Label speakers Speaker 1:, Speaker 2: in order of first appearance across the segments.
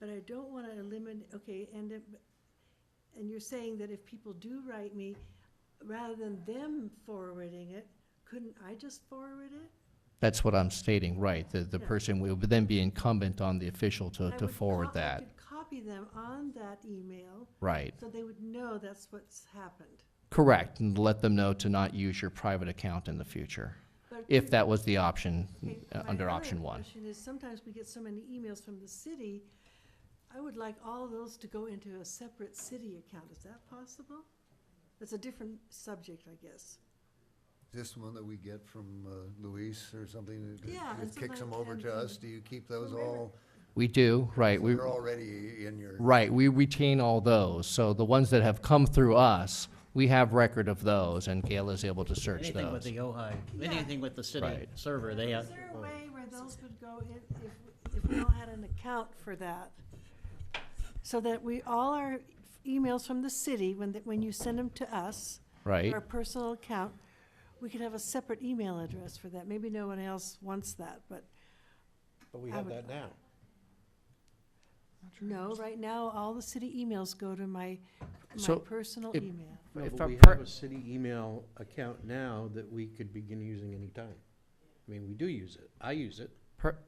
Speaker 1: but I don't want to eliminate, okay, and, it- and you're saying that if people do write me, rather than them forwarding it, couldn't I just forward it?
Speaker 2: That's what I'm stating, right? The, the
Speaker 1: Yeah.
Speaker 2: person will then be incumbent on the official
Speaker 1: I
Speaker 2: to, to
Speaker 1: would co-
Speaker 2: forward
Speaker 1: I
Speaker 2: that,
Speaker 1: could Copy them on that email,
Speaker 2: right?
Speaker 1: so they would know that's what's happened.
Speaker 2: Correct, and let them know to not use your private account in the future,
Speaker 1: But
Speaker 2: if that was the option,
Speaker 1: Okay,
Speaker 2: uh,
Speaker 1: my
Speaker 2: under
Speaker 1: other
Speaker 2: option one.
Speaker 1: question is sometimes we get so many emails from the city, I would like all those to go into a separate city account. Is that possible? That's a different subject, I guess.
Speaker 3: Is this one that we get from uh, Luis or something? that-
Speaker 1: Yeah,
Speaker 3: that
Speaker 1: and
Speaker 3: Kicks them
Speaker 1: somebody
Speaker 3: over to
Speaker 1: can-
Speaker 3: us? Do you keep those
Speaker 1: Whoever-
Speaker 3: all?
Speaker 2: We do, right, we,
Speaker 3: They're already in your,
Speaker 2: right, we retain all those, so the ones that have come through us, we have record of those, and Gail is able to search
Speaker 4: Anything with
Speaker 2: those.
Speaker 4: the OHI,
Speaker 1: Yeah.
Speaker 4: anything with the city
Speaker 2: Right.
Speaker 4: server, they have.
Speaker 1: Is there
Speaker 2: Oh.
Speaker 1: a way where those would go in if, if we all had an account for that? So that we, all our emails from the city, when, the- when you send them to us,
Speaker 2: Right,
Speaker 1: our personal account, we could have a separate email address for that. Maybe no one else wants that, but
Speaker 5: But we
Speaker 1: I
Speaker 5: have
Speaker 1: would-
Speaker 5: that now.
Speaker 1: No, right now, all the city emails go to my, my
Speaker 2: So,
Speaker 1: personal
Speaker 2: if-
Speaker 1: email.
Speaker 5: No,
Speaker 2: If
Speaker 5: but
Speaker 2: a
Speaker 5: we
Speaker 2: per-
Speaker 5: have a city email account now that we could begin using anytime. I mean, we do use it. I use it.
Speaker 2: Per-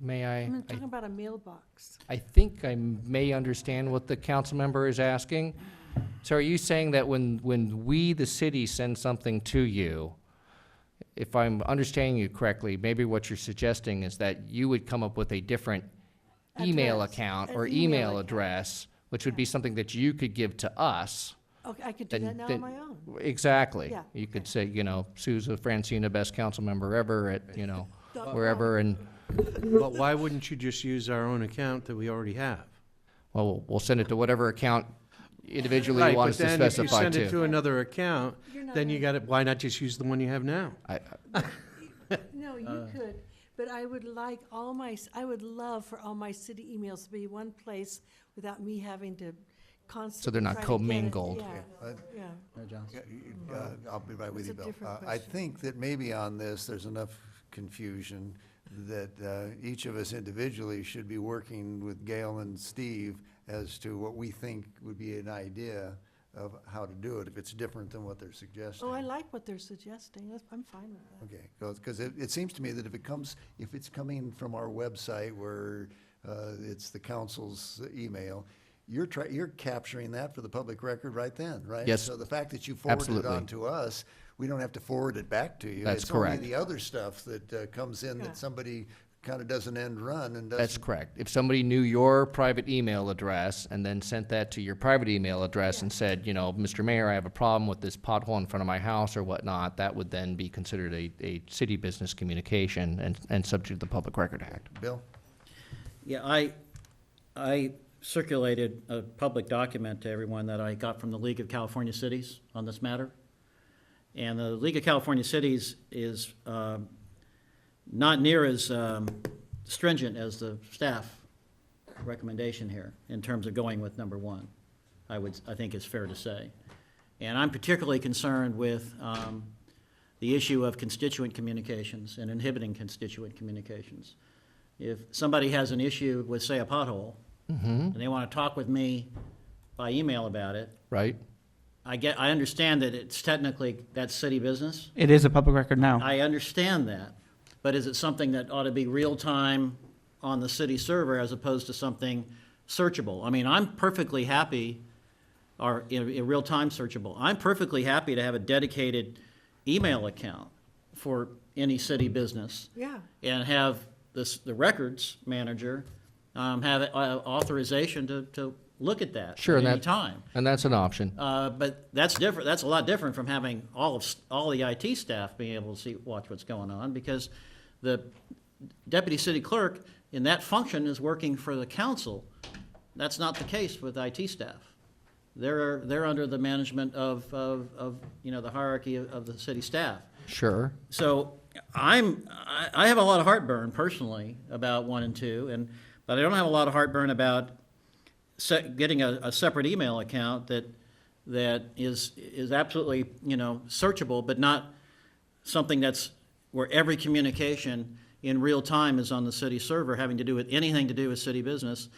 Speaker 2: may I?
Speaker 1: I'm
Speaker 2: I-
Speaker 1: talking about a mailbox.
Speaker 2: I think I may understand what the council member is asking. So are you saying that when, when we, the city, send something to you, if I'm understanding you correctly, maybe what you're suggesting is that you would come up with a different email
Speaker 1: Address,
Speaker 2: account
Speaker 1: an
Speaker 2: or
Speaker 1: email
Speaker 2: email
Speaker 1: account.
Speaker 2: address, which would be something that you could give to us.
Speaker 1: Okay, I could do
Speaker 2: then-
Speaker 1: that now
Speaker 2: then-
Speaker 1: on my own.
Speaker 2: Exactly.
Speaker 1: Yeah,
Speaker 2: You could
Speaker 1: okay.
Speaker 2: say, you know, Sue's a Francina, best council member ever at, you know,
Speaker 1: Dot com.
Speaker 2: wherever, and,
Speaker 5: But why wouldn't you just use our own account that we already have?
Speaker 2: well, we'll send it to whatever account individually
Speaker 5: Right,
Speaker 2: you want
Speaker 5: but
Speaker 2: us to
Speaker 5: then if you
Speaker 2: specify
Speaker 5: send it to another account,
Speaker 1: You're not
Speaker 5: then you
Speaker 1: on-
Speaker 5: gotta, why not just use the one you have now?
Speaker 2: I-
Speaker 1: No, you could, but I would like all my, s- I would love for all my city emails to be one place without me having to constantly.
Speaker 2: they're not
Speaker 1: try to get it.
Speaker 2: commingled.
Speaker 1: Yeah,
Speaker 3: But-
Speaker 1: yeah.
Speaker 4: No, Johnson.
Speaker 3: Uh, I'll be right
Speaker 1: It's
Speaker 3: with you,
Speaker 1: a
Speaker 3: Bill.
Speaker 1: different
Speaker 3: Uh, I
Speaker 1: question.
Speaker 3: think that maybe on this, there's enough confusion that uh, each of us individually should be working with Gail and Steve as to what we think would be an idea of how to do it, if it's different than what they're suggesting.
Speaker 1: Oh, I like what they're suggesting. That's- I'm fine with that.
Speaker 3: Okay, because it, it seems to me that if it comes, if it's coming from our website where uh, it's the council's email, you're try, you're capturing that for the public record right then, right?
Speaker 2: Yes,
Speaker 3: So the fact that you forwarded it
Speaker 2: absolutely.
Speaker 3: on to us, we don't have to forward it back to you.
Speaker 2: That's
Speaker 3: It's
Speaker 2: correct.
Speaker 3: only the other stuff that uh, comes in
Speaker 1: Yeah.
Speaker 3: that somebody kind of doesn't end run and
Speaker 2: That's
Speaker 3: doesn't.
Speaker 2: correct. If somebody knew your private email address and then sent that to your private email address and said, you know, Mr. Mayor, I have a problem with this pothole in front of my house or whatnot, that would then be considered a, a city business communication and, and subject to the Public Record Act.
Speaker 3: Bill?
Speaker 4: Yeah, I, I circulated a public document to everyone that I got from the League of California Cities on this matter. And the League of California Cities is um, not near as um, stringent as the staff recommendation here in terms of going with number one, I would, I think is fair to say. And I'm particularly concerned with um, the issue of constituent communications and inhibiting constituent communications. If somebody has an issue with, say, a pothole, and they want to talk with me by email about it,
Speaker 2: Right?
Speaker 4: I get, I understand that it's technically, that's city business.
Speaker 6: It is a public record now.
Speaker 4: I understand that, but is it something that ought to be real-time on the city server as opposed to something searchable? I mean, I'm perfectly happy, or in, in real-time searchable, I'm perfectly happy to have a dedicated email account for any city business
Speaker 1: Yeah.
Speaker 4: and have this, the records manager, um, have uh, authorization to, to look at that
Speaker 2: Sure,
Speaker 4: at
Speaker 2: and
Speaker 4: any
Speaker 2: that-
Speaker 4: time.
Speaker 2: And that's an option.
Speaker 4: Uh, but that's different, that's a lot different from having all of, s- all the IT staff being able to see, watch what's going on, because the deputy city clerk in that function is working for the council. That's not the case with IT staff. They're, they're under the management of, of, of, you know, the hierarchy of, of the city staff.
Speaker 2: Sure.
Speaker 4: So I'm, I, I have a lot of heartburn personally about one and two, and, but I don't have a lot of heartburn about se- getting a, a separate email account that, that is, is absolutely, you know, searchable, but not something that's, where every communication in real time is on the city server, having to do with, anything to do with city business,